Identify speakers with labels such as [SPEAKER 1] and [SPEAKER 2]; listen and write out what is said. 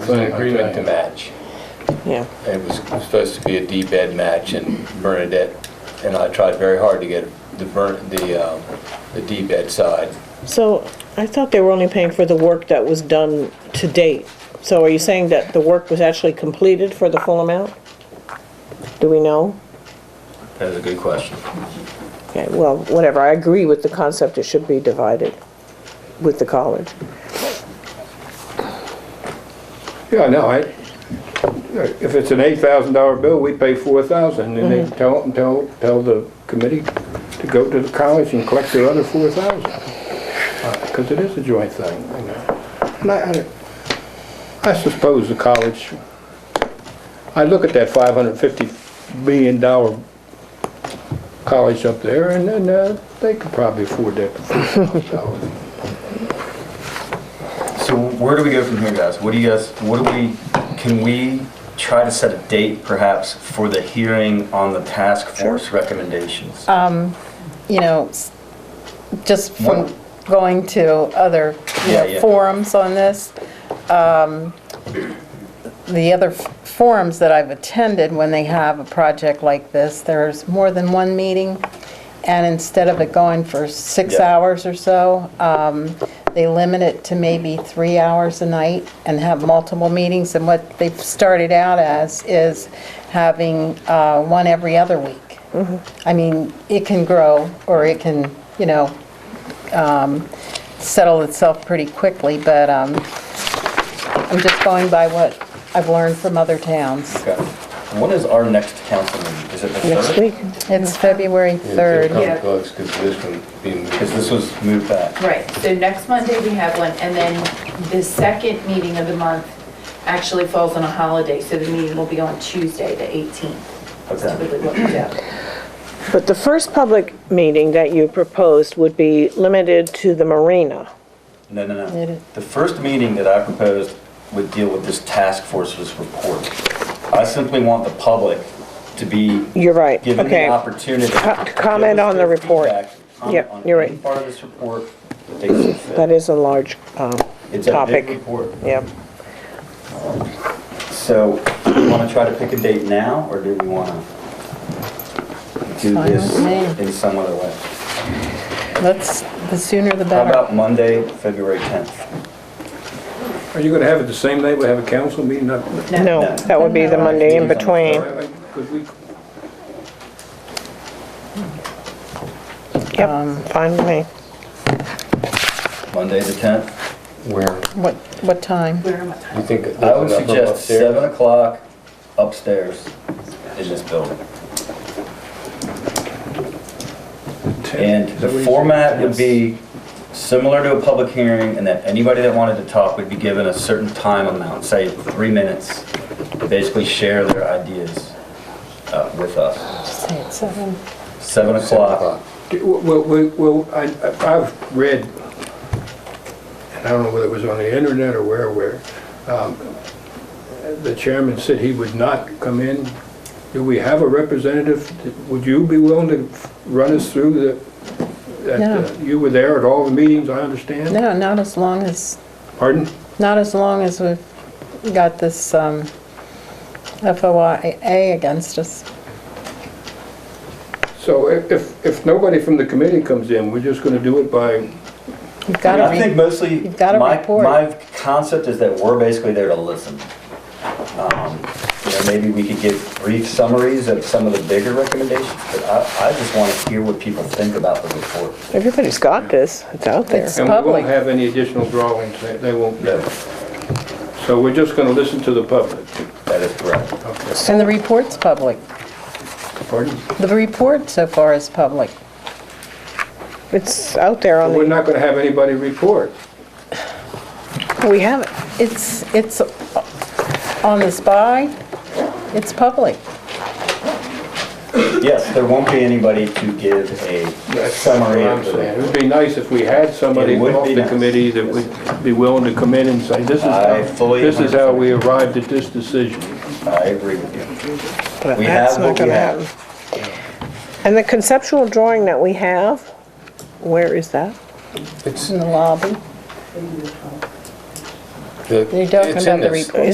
[SPEAKER 1] an agreement to match.
[SPEAKER 2] Yeah,
[SPEAKER 1] It was supposed to be a D-bed match, and Bernadette and I tried very hard to get the Bern- the um, the D-bed side.
[SPEAKER 2] so I thought they were only paying for the work that was done to date. So are you saying that the work was actually completed for the full amount? Do we know?
[SPEAKER 1] That's a good question.
[SPEAKER 2] Okay, well, whatever, I agree with the concept, it should be divided with the college.
[SPEAKER 3] Yeah, no, I, if it's an eight thousand dollar bill, we pay four thousand, and they tell, tell, tell the committee to go to the college and collect the other four thousand. Because it is a joint thing, you know. And I, I- I suppose the college, I look at that five hundred fifty million dollar college up there, and then, uh, they could probably afford that for $4,000.
[SPEAKER 4] So where do we go from here, guys? What do you guys, what do we, can we try to set a date perhaps for the hearing on the task force recommendations?
[SPEAKER 2] Uh,
[SPEAKER 5] you know, s- just
[SPEAKER 4] What-
[SPEAKER 5] from going to other you
[SPEAKER 4] Yeah,
[SPEAKER 5] know,
[SPEAKER 4] yeah.
[SPEAKER 5] forums on this, um, the other f- forums that I've attended, when they have a project like this, there's more than one meeting, and instead of it going for six
[SPEAKER 4] Yeah.
[SPEAKER 5] hours or so, um, they limit it to maybe three hours a night and have multiple meetings, and what they've started out as is having uh, one every other week.
[SPEAKER 4] Mm-hmm.
[SPEAKER 5] I mean, it can grow, or it can, you know, um, settle itself pretty quickly, but um, I'm just going by what I've learned from other towns.
[SPEAKER 4] Okay. When is our next council meeting? Is it the
[SPEAKER 2] Next
[SPEAKER 4] third?
[SPEAKER 2] week?
[SPEAKER 5] It's February 3rd.
[SPEAKER 6] Yeah.
[SPEAKER 1] Because this one being...
[SPEAKER 4] Because this was moved back.
[SPEAKER 6] Right, so next Monday we have one, and then the second meeting of the month actually falls on a holiday, so the meeting will be on Tuesday, the 18th. That's
[SPEAKER 4] Okay.
[SPEAKER 6] typically what we do.
[SPEAKER 2] But the first public meeting that you proposed would be limited to the marina.
[SPEAKER 4] No, no,
[SPEAKER 5] It is.
[SPEAKER 4] no. The first meeting that I proposed would deal with this task force's report. I simply want the public to be
[SPEAKER 2] You're right,
[SPEAKER 4] given the
[SPEAKER 2] okay.
[SPEAKER 4] opportunity.
[SPEAKER 2] Co-
[SPEAKER 4] to
[SPEAKER 2] comment
[SPEAKER 4] give us
[SPEAKER 2] on
[SPEAKER 4] their
[SPEAKER 2] the report.
[SPEAKER 4] feedback,
[SPEAKER 2] Yep,
[SPEAKER 4] Comment on
[SPEAKER 2] you're
[SPEAKER 4] any
[SPEAKER 2] right.
[SPEAKER 4] part of this report that they see fit.
[SPEAKER 2] That is a large um,
[SPEAKER 4] It's a big
[SPEAKER 2] topic.
[SPEAKER 4] report.
[SPEAKER 2] Yeah.
[SPEAKER 4] So, do we want to try to pick a date now, or do we want to do
[SPEAKER 5] Fine
[SPEAKER 4] this
[SPEAKER 5] with
[SPEAKER 4] in some other way?
[SPEAKER 5] Let's, the sooner the
[SPEAKER 4] How
[SPEAKER 5] better.
[SPEAKER 4] about Monday, February 10th?
[SPEAKER 3] Are you gonna have it the same night we have a council meeting up?
[SPEAKER 2] No, that would be the Monday in between.
[SPEAKER 3] Because we
[SPEAKER 5] Um,
[SPEAKER 2] Yep, fine with me.
[SPEAKER 4] Monday the 10th?
[SPEAKER 1] Where,
[SPEAKER 5] What, what time?
[SPEAKER 6] Where am I?
[SPEAKER 1] you think...
[SPEAKER 4] I would
[SPEAKER 1] there's enough of them
[SPEAKER 4] suggest
[SPEAKER 1] upstairs?
[SPEAKER 4] 7 o'clock upstairs in this building. And the format would be similar to a public hearing, and that anybody that wanted to talk would be given a certain time amount, say three minutes, to basically share their ideas uh, with us.
[SPEAKER 5] Just say it's seven.
[SPEAKER 4] Seven o'clock.
[SPEAKER 3] Well, we- well, I, I've read, and I don't know whether it was on the internet or where, where, um, the chairman said he would not come in. Do we have a representative? Would you be willing to run us through the, that, uh,
[SPEAKER 5] No.
[SPEAKER 3] you were there at all the meetings, I understand?
[SPEAKER 5] No, not as long as,
[SPEAKER 3] Pardon?
[SPEAKER 5] not as long as we've got this um, FOIA against us.
[SPEAKER 3] So if, if- if nobody from the committee comes in, we're just gonna do it by,
[SPEAKER 5] We've got to
[SPEAKER 4] I think
[SPEAKER 5] read,
[SPEAKER 4] mostly,
[SPEAKER 5] you've gotta
[SPEAKER 4] my,
[SPEAKER 5] report.
[SPEAKER 4] my concept is that we're basically there to listen. Um, You know, maybe we could give brief summaries of some of the bigger recommendations, but I, I just want to hear what people think about the report.
[SPEAKER 2] Everybody's got this, it's out there.
[SPEAKER 5] It's-
[SPEAKER 3] and we
[SPEAKER 5] public.
[SPEAKER 3] won't have any additional drawings, They- they won't.
[SPEAKER 4] No,
[SPEAKER 3] So we're just gonna listen to the public.
[SPEAKER 4] That is correct.
[SPEAKER 5] and the report's public.
[SPEAKER 3] Pardon?
[SPEAKER 5] The report so far is public.
[SPEAKER 2] It's out there on
[SPEAKER 3] We're
[SPEAKER 2] the,
[SPEAKER 3] not gonna have anybody report.
[SPEAKER 2] we have it.
[SPEAKER 5] It's, it's on the spy, it's public.
[SPEAKER 4] Yes, there won't be anybody to give a
[SPEAKER 3] That's
[SPEAKER 4] summary
[SPEAKER 3] what
[SPEAKER 4] of
[SPEAKER 3] I'm saying. It
[SPEAKER 4] the...
[SPEAKER 3] would be nice if we had somebody
[SPEAKER 4] It would
[SPEAKER 3] off
[SPEAKER 4] be
[SPEAKER 3] the
[SPEAKER 4] nice.
[SPEAKER 3] committee that would be willing to come in and say, this is
[SPEAKER 4] I
[SPEAKER 3] how,
[SPEAKER 4] fully
[SPEAKER 3] this is how
[SPEAKER 4] 100%.
[SPEAKER 3] we arrived at this decision.
[SPEAKER 4] I agree with you.
[SPEAKER 2] but
[SPEAKER 4] We
[SPEAKER 2] that's
[SPEAKER 4] have
[SPEAKER 2] not
[SPEAKER 4] what we
[SPEAKER 2] gonna
[SPEAKER 4] have.
[SPEAKER 2] happen. And the conceptual drawing that we have, where is that?
[SPEAKER 1] It's
[SPEAKER 5] in the lobby.
[SPEAKER 1] the-
[SPEAKER 5] You're talking
[SPEAKER 1] it's in
[SPEAKER 5] about the
[SPEAKER 1] this.
[SPEAKER 5] report.